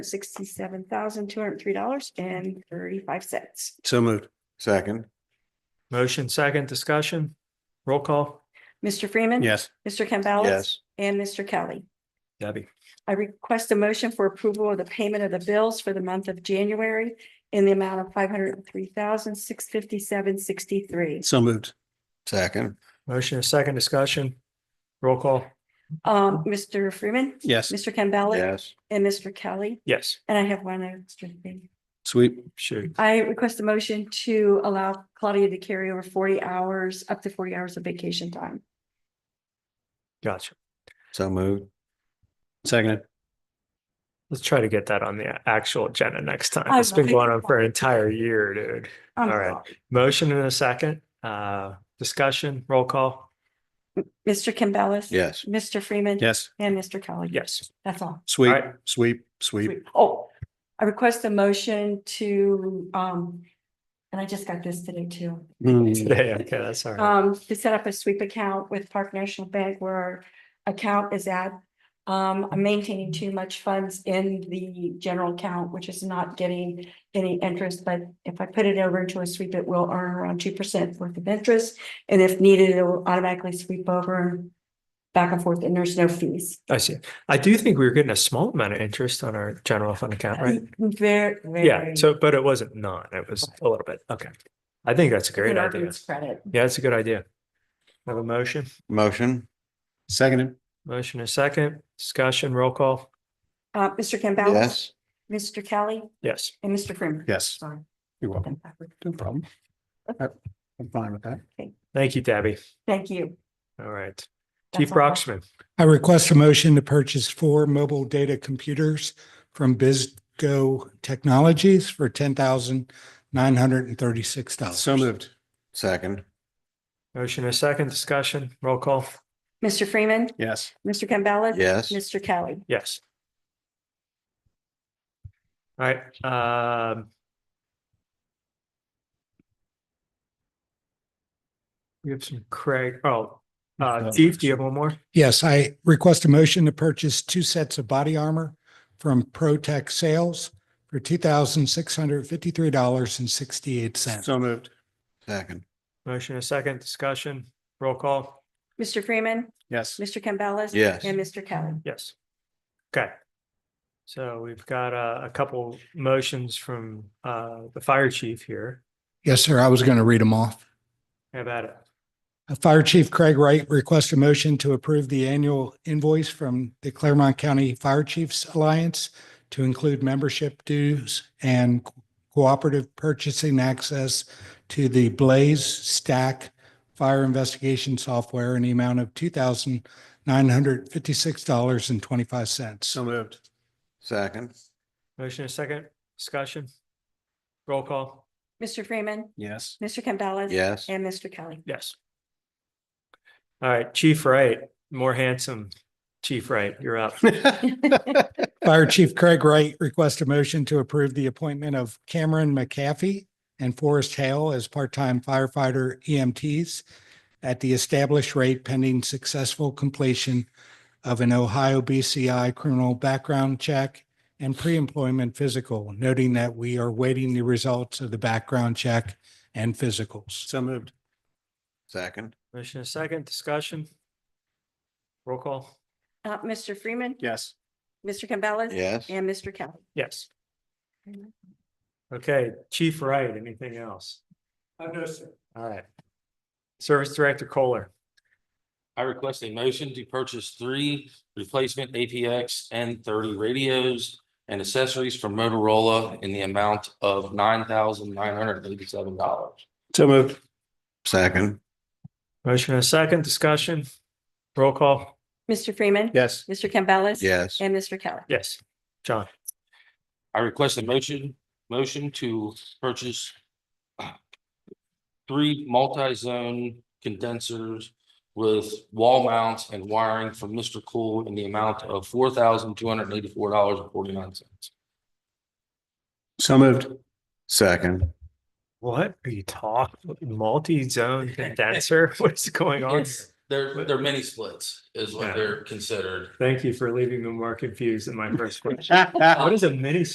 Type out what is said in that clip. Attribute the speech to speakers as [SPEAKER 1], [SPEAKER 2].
[SPEAKER 1] sixty-seven thousand, two hundred and three dollars and thirty-five cents.
[SPEAKER 2] So moved.
[SPEAKER 3] Second,
[SPEAKER 4] Motion second discussion, roll call,
[SPEAKER 1] Mr. Freeman.
[SPEAKER 2] Yes.
[SPEAKER 1] Mr. Campbell.
[SPEAKER 3] yes,
[SPEAKER 1] And Mr. Kelly.
[SPEAKER 4] Debbie.
[SPEAKER 1] I request a motion for approval of the payment of the bills for the month of January in the amount of five hundred and three thousand, six fifty-seven, sixty-three.
[SPEAKER 2] So moved.
[SPEAKER 3] second,
[SPEAKER 4] Motion and second discussion, roll call,
[SPEAKER 1] Um, Mr. Freeman.
[SPEAKER 2] Yes.
[SPEAKER 1] Mr. Campbell.
[SPEAKER 3] yes,
[SPEAKER 1] And Mr. Kelly.
[SPEAKER 4] yes,
[SPEAKER 1] And I have one extra thing.
[SPEAKER 2] Sweep.
[SPEAKER 4] shoot,
[SPEAKER 1] I request a motion to allow Claudia to carry over forty hours, up to forty hours of vacation time.
[SPEAKER 4] gotcha.
[SPEAKER 3] so moved,
[SPEAKER 2] Seconded.
[SPEAKER 4] Let's try to get that on the actual agenda next time.
[SPEAKER 1] I
[SPEAKER 4] It's been
[SPEAKER 1] will.
[SPEAKER 4] going on for an entire year, dude.
[SPEAKER 1] I'm
[SPEAKER 4] All right.
[SPEAKER 1] sorry.
[SPEAKER 4] Motion and a second, uh, discussion, roll call,
[SPEAKER 1] Mr. Campbell.
[SPEAKER 3] yes,
[SPEAKER 1] Mr. Freeman.
[SPEAKER 2] Yes.
[SPEAKER 1] And Mr. Kelly.
[SPEAKER 4] yes.
[SPEAKER 1] That's all.
[SPEAKER 2] Sweep,
[SPEAKER 4] All right.
[SPEAKER 2] sweep, sweep.
[SPEAKER 1] Sweet. Oh, I request a motion to, um, and I just got this today too.
[SPEAKER 2] Mm.
[SPEAKER 4] Today, okay, that's all right.
[SPEAKER 1] Um, to set up a sweep account with Park National Bank where our account is at. Um, I'm maintaining too much funds in the general account, which is not getting any interest, but if I put it over into a sweep, it will earn around two percent worth of interest. And if needed, it will automatically sweep over back and forth and there's no fees.
[SPEAKER 4] I see. I do think we were getting a small amount of interest on our general fund account, right?
[SPEAKER 1] Very, very.
[SPEAKER 4] Yeah, so, but it wasn't none, it was a little bit, okay. I think that's a great idea.
[SPEAKER 1] Credit.
[SPEAKER 4] Yeah, that's a good idea. Have a motion?
[SPEAKER 3] motion,
[SPEAKER 2] Seconded.
[SPEAKER 4] Motion a second, discussion, roll call.
[SPEAKER 1] Uh, Mr. Campbell.
[SPEAKER 3] yes,
[SPEAKER 1] Mr. Kelly
[SPEAKER 4] Yes.
[SPEAKER 1] and Mr. Freeman.
[SPEAKER 2] Yes.
[SPEAKER 1] Sorry.
[SPEAKER 2] You're welcome.
[SPEAKER 1] I'm backward.
[SPEAKER 2] No problem. I- I'm fine with that.
[SPEAKER 4] Thank you, Debbie.
[SPEAKER 1] Thank you.
[SPEAKER 4] All right.
[SPEAKER 1] That's
[SPEAKER 4] Chief
[SPEAKER 1] all I have.
[SPEAKER 4] Broxman,
[SPEAKER 5] I request a motion to purchase four mobile data computers from Bizgo Technologies for ten thousand nine hundred and thirty-six dollars.
[SPEAKER 2] So moved.
[SPEAKER 3] second,
[SPEAKER 4] motion a second, discussion, roll call.
[SPEAKER 1] Mr. Freeman,
[SPEAKER 2] Yes.
[SPEAKER 1] Mr. Campbell.
[SPEAKER 3] yes,
[SPEAKER 1] Mr. Kelly.
[SPEAKER 4] Yes. All right, um. We have some Craig, oh, uh, Chief, do you have one more?
[SPEAKER 5] Yes, I request a motion to purchase two sets of body armor from ProTech Sales for two thousand six hundred fifty-three dollars and sixty-eight cents.
[SPEAKER 2] So moved.
[SPEAKER 3] second,
[SPEAKER 4] Motion a second, discussion, roll call.
[SPEAKER 1] Mr. Freeman,
[SPEAKER 2] Yes.
[SPEAKER 1] Mr. Campbell.
[SPEAKER 3] Yes.
[SPEAKER 1] And Mr. Kelly.
[SPEAKER 4] Yes. Okay. So we've got a, a couple motions from, uh, the fire chief here.
[SPEAKER 5] Yes, sir, I was going to read them off.
[SPEAKER 4] How about it?
[SPEAKER 5] Uh, Fire Chief Craig Wright requests a motion to approve the annual invoice from the Claremont County Fire Chiefs Alliance to include membership dues and co- cooperative purchasing access to the Blaze Stack Fire Investigation Software in the amount of two thousand nine hundred fifty-six dollars and twenty-five cents.
[SPEAKER 2] So moved.
[SPEAKER 3] second,
[SPEAKER 4] Motion a second, discussion, roll call,
[SPEAKER 1] Mr. Freeman,
[SPEAKER 2] Yes.
[SPEAKER 1] Mr. Campbell.
[SPEAKER 3] yes,
[SPEAKER 1] And Mr. Kelly.
[SPEAKER 4] yes. All right, Chief Wright, more handsome, Chief Wright, you're up.
[SPEAKER 5] Fire Chief Craig Wright requests a motion to approve the appointment of Cameron McCaffey and Forrest Hale as part-time firefighter EMTs at the established rate pending successful completion of an Ohio BCI criminal background check and pre-employment physical, noting that we are waiting the results of the background check and physicals.
[SPEAKER 2] So moved.
[SPEAKER 3] second,
[SPEAKER 4] Motion a second, discussion. Roll call,
[SPEAKER 1] Uh, Mr. Freeman,
[SPEAKER 2] Yes.
[SPEAKER 1] Mr. Campbell.
[SPEAKER 3] yes,
[SPEAKER 1] And Mr. Kelly.
[SPEAKER 4] yes. Okay, Chief Wright, anything else? No, sir. All right. Service Director Kohler.
[SPEAKER 6] I request a motion to purchase three replacement APX N thirty radios and accessories from Motorola in the amount of nine thousand nine hundred eighty-seven dollars.
[SPEAKER 2] So moved.
[SPEAKER 3] second,
[SPEAKER 4] Motion and a second, discussion, roll call,
[SPEAKER 1] Mr. Freeman.
[SPEAKER 2] Yes.
[SPEAKER 1] Mr. Campbell.
[SPEAKER 3] yes,
[SPEAKER 1] And Mr. Kelly.
[SPEAKER 4] yes, John,
[SPEAKER 6] I request a motion, motion to purchase three multi-zone condensers with wall mounts and wiring from Mr. Cool in the amount of four thousand two hundred eighty-four dollars and forty-nine cents.
[SPEAKER 2] So moved.
[SPEAKER 3] second,
[SPEAKER 4] what are you talking, multi-zone condenser, what's going on? here?
[SPEAKER 6] They're, they're mini splits is
[SPEAKER 4] Yeah.
[SPEAKER 6] what they're considered.
[SPEAKER 4] Thank you for leaving me more confused than my first question. What is a mini